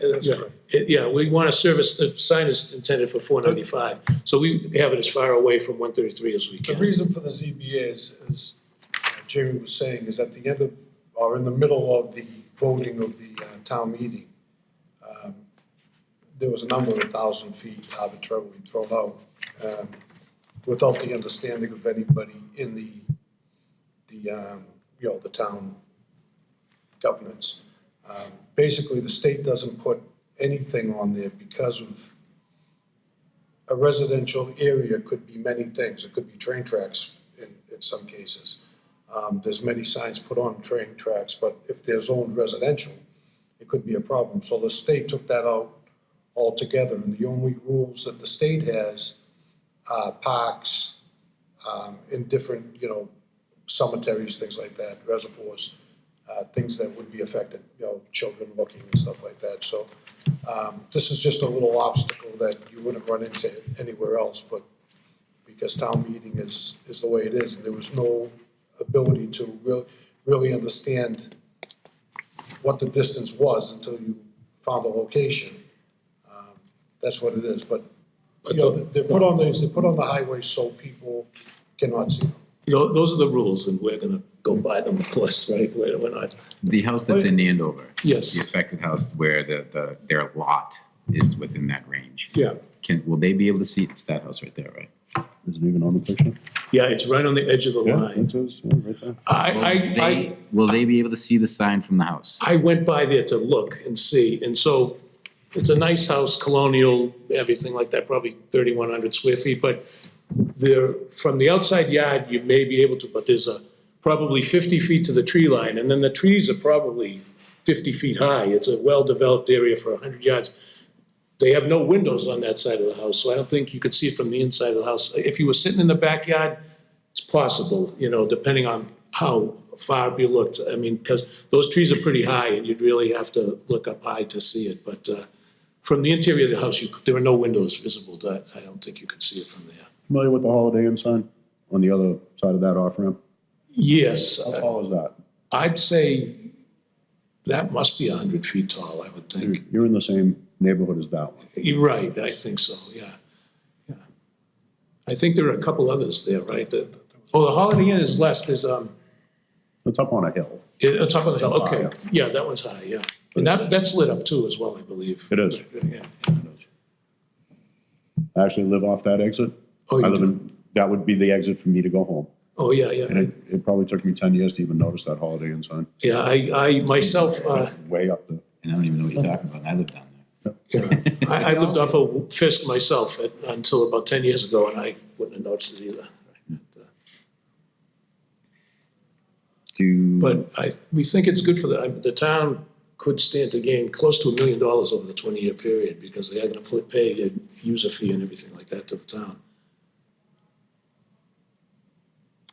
That's correct. Yeah, we want to service, the sign is intended for four ninety-five, so we have it as far away from one thirty-three as we The can. reason for the ZBA is, as uh, Jamie was saying, is at the end of, or in the middle of the voting of the uh, town meeting, um, there was a number of thousand feet arbitrarily thrown out, um, without the understanding of anybody in the, the, um, you know, the town governance. Um, Basically, the state doesn't put anything on there because of a residential area could be many things. It could be train tracks in, in some cases. Um, there's many signs put on train tracks, but if they're zoned residential, it could be a problem. So the state took that out altogether, and the only rules that the state has are parks, um, in different, you know, cemeteries, things like that, reservoirs, uh, things that would be affected, you know, children looking and stuff like that. So, um, this is just a little obstacle that you wouldn't run into anywhere else, but because town meeting is, is the way it is, and there was no ability to really, really understand what the distance was until you found the location. Um, That's what it is, but, you But know, the- they're put on the, they're put on the highway so people cannot see them. Tho- Those are the rules, and we're gonna go by them, of course, right? We're we're not, The house that's in Andover. Yes. The affected house where the, the, their lot is within that range. yeah, Can, will they be able to see, it's that house right there, right? Is it even on the picture? yeah, it's right on the edge of the line. right there. I, I, I, Will they be able to see the sign from the house? I went by there to look and see, and so it's a nice house, colonial, everything like that, probably thirty-one hundred square feet, but there, from the outside yard, you may be able to, but there's a, probably fifty feet to the tree line, and then the trees are probably fifty feet high, it's a well-developed area for hundred yards. They have no windows on that side of the house, so I don't think you could see it from the inside of the house. If you were sitting in the backyard, it's possible, you know, depending on how far up you looked. I mean, because those trees are pretty high and you'd really have to look up high to see it. But uh, from the interior of the house, you, there are no windows visible. That I don't think you could see it from there. Familiar with the Holiday Inn sign on the other side of that off ramp? Yes, uh, How tall is that? I'd say that must be 100 feet tall, I would think. You're in the same neighborhood as that one. You're right, I think so, yeah. Yeah. I think there are a couple others there, right? that- Oh, the Holiday Inn is less, there's, um, It's up on a hill. Yeah, It's up on the hill, It's high, okay. Yeah, that one's high, yeah. And that, that's lit up too as well, I believe. It is. Yeah. I actually live off that exit. Oh, you I live do? in, that would be the exit for me to go home. Oh, yeah, yeah. And it, it probably took me ten years to even notice that Holiday Inn sign, Yeah, I, I myself, uh, way up there. And I don't even know what you're talking about, and I live down there. you know, I, I lived off of Fisk myself at- until about 10 years ago and I wouldn't have noticed it either. Do. But I, we think it's good for the, the town could stand to gain close to a million dollars over the 20-year period because they are going to pay a user fee and everything like that to the town.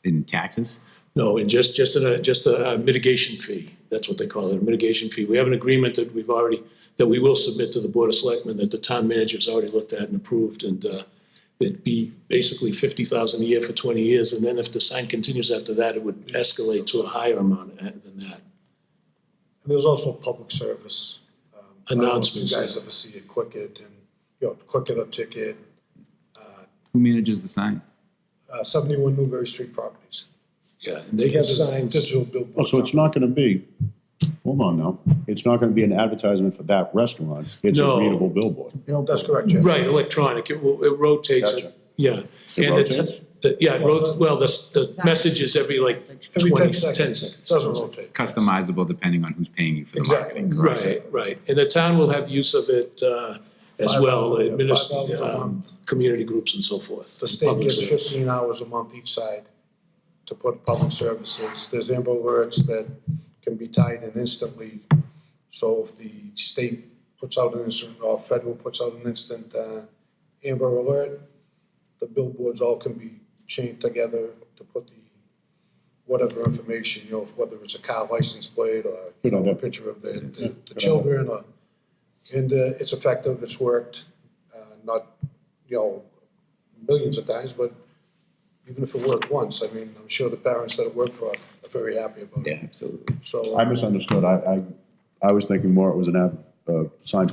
In taxes? No, and just, just a, just a uh, mitigation fee, that's what they call it, a mitigation fee. We have an agreement that we've already, that we will submit to the Board of Selectmen that the town manager's already looked at and approved, and uh, it'd be basically fifty thousand a year for twenty years, and then if the sign continues after that, it would escalate to a higher amount uh, than that. And there's also public service. um, I don't know if Announcements, You yeah. guys ever see it, click it, and, you know, click it a ticket, Who manages the sign? uh, seventy-one Newberry Street Properties. Yeah, and they Yeah, have there's a signs, Digital billboard. Oh, so it's not gonna be, hold on now, it's not gonna be an advertisement for that restaurant. It's a No. readable billboard. company. That's correct, Jeff. right, electronic, it wo- it rotates, it. Gotcha. yeah. It And the t- rotates? the- Yeah, it rotates, well, the, s- the message is every like Every twenty, ten ten seconds, it seconds. doesn't rotate. Customizable depending on who's paying you for the Exactly. marketing. correct? Right, right, and the town will have use of it uh, as Five well, hours, yeah, adminis- five hours a um, month. community groups and so forth. The state public gets service. fifteen hours a month each side to put public services. There's Amber alerts that can be tied in instantly. So if the state puts out an instant, or federal puts out an instant, uh, Amber Alert, the billboards all can be chained together to put the, whatever information, you know, whether it's a car license plate or, you know, a picture of the, the- the children or, and, uh, it's effective, it's worked, uh, not, you know, millions of times, but even if it worked once, I mean, I'm sure the parents that it worked for are very happy about it. Yeah, absolutely. So. I misunderstood. I, I, I was thinking more it was an ad, uh, sign